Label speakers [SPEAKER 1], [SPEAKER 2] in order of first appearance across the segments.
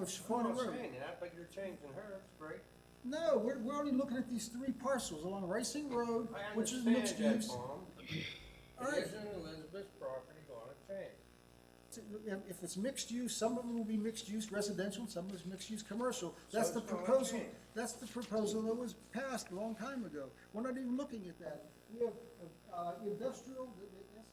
[SPEAKER 1] of
[SPEAKER 2] I'm
[SPEAKER 1] Chaffona
[SPEAKER 2] not
[SPEAKER 1] Road.
[SPEAKER 2] saying that, but you're changing her, it's great.
[SPEAKER 1] No, we're, we're only looking at these three parcels along Racing Road,
[SPEAKER 2] I
[SPEAKER 1] which is mixed
[SPEAKER 2] understand that,
[SPEAKER 1] use.
[SPEAKER 2] Tom.
[SPEAKER 1] All
[SPEAKER 2] It
[SPEAKER 1] right.
[SPEAKER 2] isn't Elizabeth's property gonna change.
[SPEAKER 1] If if it's mixed use, some of it will be mixed use residential, some of it's mixed use commercial. That's the
[SPEAKER 2] it's not
[SPEAKER 1] proposal,
[SPEAKER 2] changed.
[SPEAKER 1] that's the proposal that was passed a long time ago. We're not even looking at that. We have, uh, industrial, the- the S-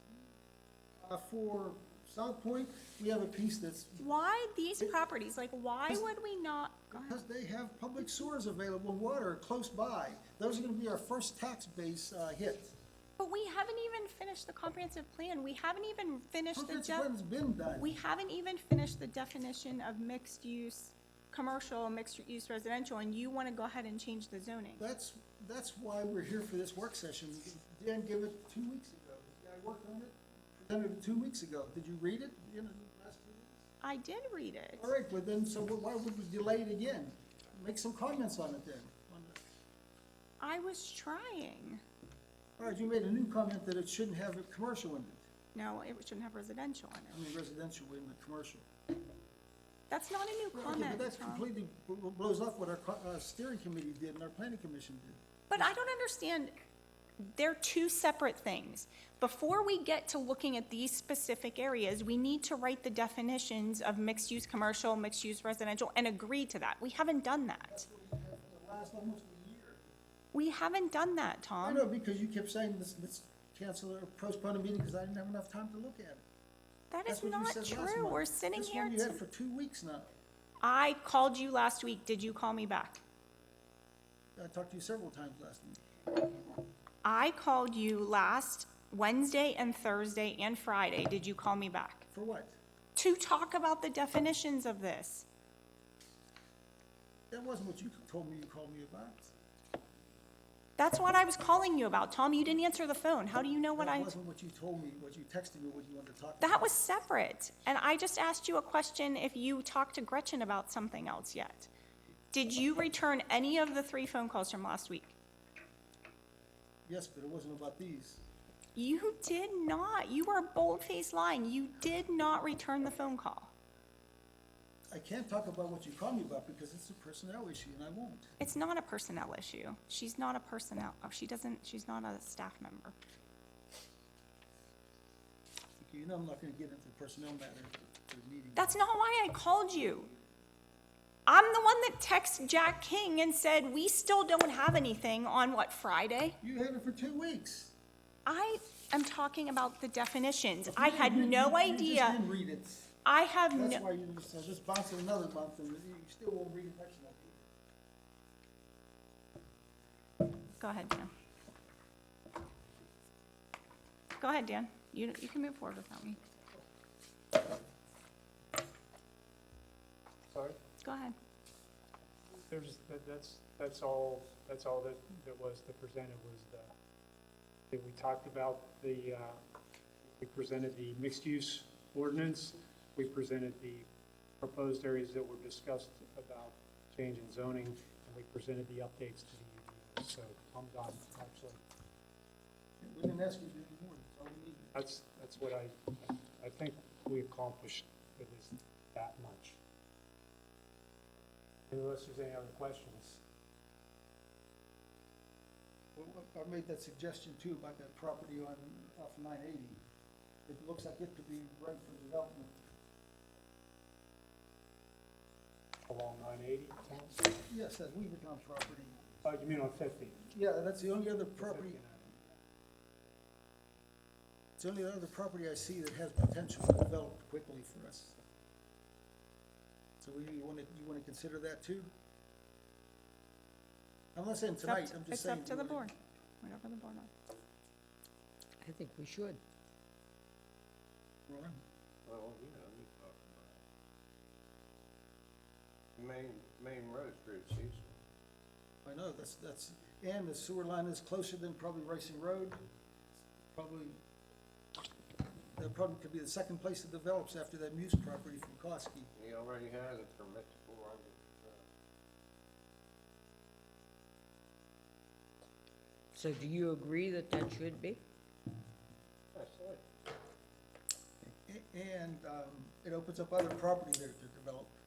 [SPEAKER 1] uh, for South Point, we have a piece that's,
[SPEAKER 3] Why these properties? Like, why would we not?
[SPEAKER 1] because they have public sewers available, water close by. Those are gonna be our first tax base, uh, hit.
[SPEAKER 3] But we haven't even finished the comprehensive plan. We haven't even finished the
[SPEAKER 1] Comprehensive plan's
[SPEAKER 3] def,
[SPEAKER 1] been done.
[SPEAKER 3] we haven't even finished the definition of mixed use, commercial, mixed use residential, and you want to go ahead and change the zoning.
[SPEAKER 1] That's, that's why we're here for this work session. Dan gave it two weeks ago. I worked on it, presented it two weeks ago. Did you read it? You know, the last two weeks?
[SPEAKER 3] I did read it.
[SPEAKER 1] All right, well then, so why would we delay it again? Make some comments on it then.
[SPEAKER 3] I was trying.
[SPEAKER 1] All right, you made a new comment that it shouldn't have a commercial in it,
[SPEAKER 3] No, it shouldn't have residential in
[SPEAKER 1] I
[SPEAKER 3] it.
[SPEAKER 1] mean residential in the commercial.
[SPEAKER 3] That's not a new
[SPEAKER 1] Okay,
[SPEAKER 3] comment,
[SPEAKER 1] But that's
[SPEAKER 3] Tom.
[SPEAKER 1] completely bl- bl- blows off what our co- uh, steering committee did and our planning commission did.
[SPEAKER 3] But I don't understand, they're two separate things. Before we get to looking at these specific areas, we need to write the definitions of mixed-use commercial, mixed-use residential, and agree to that. We haven't done that.
[SPEAKER 1] For the last almost a year.
[SPEAKER 3] We haven't done that,
[SPEAKER 1] I
[SPEAKER 3] Tom.
[SPEAKER 1] know, because you kept saying, let's, let's cancel or postpone a meeting because I didn't have enough time to look at it.
[SPEAKER 3] That
[SPEAKER 1] That's
[SPEAKER 3] is
[SPEAKER 1] what you
[SPEAKER 3] not
[SPEAKER 1] said last
[SPEAKER 3] true.
[SPEAKER 1] month.
[SPEAKER 3] We're sitting
[SPEAKER 1] That's
[SPEAKER 3] here,
[SPEAKER 1] one you had
[SPEAKER 3] t-
[SPEAKER 1] for two weeks now.
[SPEAKER 3] I called you last week. Did you call me back?
[SPEAKER 1] I talked to you several times last week.
[SPEAKER 3] I called you last Wednesday and Thursday and Friday. Did you call me back?
[SPEAKER 1] For what?
[SPEAKER 3] To talk about the definitions of this.
[SPEAKER 1] That wasn't what you told me you called me about.
[SPEAKER 3] That's what I was calling you about, Tom. You didn't answer the phone. How do you know what
[SPEAKER 1] That
[SPEAKER 3] I?
[SPEAKER 1] wasn't what you told me, what you texted me, what you wanted to talk about.
[SPEAKER 3] That was separate. And I just asked you a question if you talked to Gretchen about something else yet. Did you return any of the three phone calls from last week?
[SPEAKER 1] Yes, but it wasn't about these.
[SPEAKER 3] You did not. You are bold-faced lying. You did not return the phone call.
[SPEAKER 1] I can't talk about what you called me about because it's a personnel issue and I won't.
[SPEAKER 3] It's not a personnel issue. She's not a personnel, oh, she doesn't, she's not a staff member.
[SPEAKER 1] You know I'm not gonna get into personnel matters at the meeting.
[SPEAKER 3] That's not why I called you. I'm the one that texted Jack King and said, "We still don't have anything on what, Friday?"
[SPEAKER 1] You had it for two weeks.
[SPEAKER 3] I am talking about the definitions. I had
[SPEAKER 1] You- you- You
[SPEAKER 3] no
[SPEAKER 1] just
[SPEAKER 3] idea.
[SPEAKER 1] didn't read it.
[SPEAKER 3] I have
[SPEAKER 1] That's why
[SPEAKER 3] no,
[SPEAKER 1] you just, I just bounced it another month and you you still won't read the next month.
[SPEAKER 3] go ahead, Dan. Go ahead, Dan. You, you can move forward without me.
[SPEAKER 4] Sorry?
[SPEAKER 3] Go ahead.
[SPEAKER 4] There's, that- that's, that's all, that's all that, that was, that presented was the, that we talked about the, uh, we presented the mixed-use ordinance, we presented the proposed areas that were discussed about change in zoning, and we presented the updates to the, UDO. so I'm done, actually.
[SPEAKER 1] We didn't ask you to do any more, that's all we needed.
[SPEAKER 4] That's, that's what I, I think we accomplished at least that much. Unless there's any other questions.
[SPEAKER 1] Well, what- I made that suggestion too about that property on, off nine eighty. It looks like it could be right for development.
[SPEAKER 4] along nine eighty.
[SPEAKER 1] Yes, that Weavertown property.
[SPEAKER 4] Oh, you mean on fifty?
[SPEAKER 1] Yeah, that's the only other property, it's the only other property I see that has potential to develop quickly for us. So we, you wanna, you wanna consider that too? I'm not saying
[SPEAKER 3] It's up
[SPEAKER 1] tonight,
[SPEAKER 3] to-
[SPEAKER 1] I'm just saying.
[SPEAKER 3] It's up to the
[SPEAKER 1] we wanna-
[SPEAKER 3] board, whatever the board wants.
[SPEAKER 5] I think we should.
[SPEAKER 1] Ron?
[SPEAKER 2] Well, you know, you talk about main, main road's pretty seasonal.
[SPEAKER 1] I know, that's, that's, and the sewer line is closer than probably Racing Road. Probably, that probably could be the second place that develops after that Muse property from Koski.
[SPEAKER 2] He already has it for Mr. Four hundred.
[SPEAKER 5] So do you agree that that should be?
[SPEAKER 2] That's it.
[SPEAKER 1] A- And, um, it opens up other property there to develop.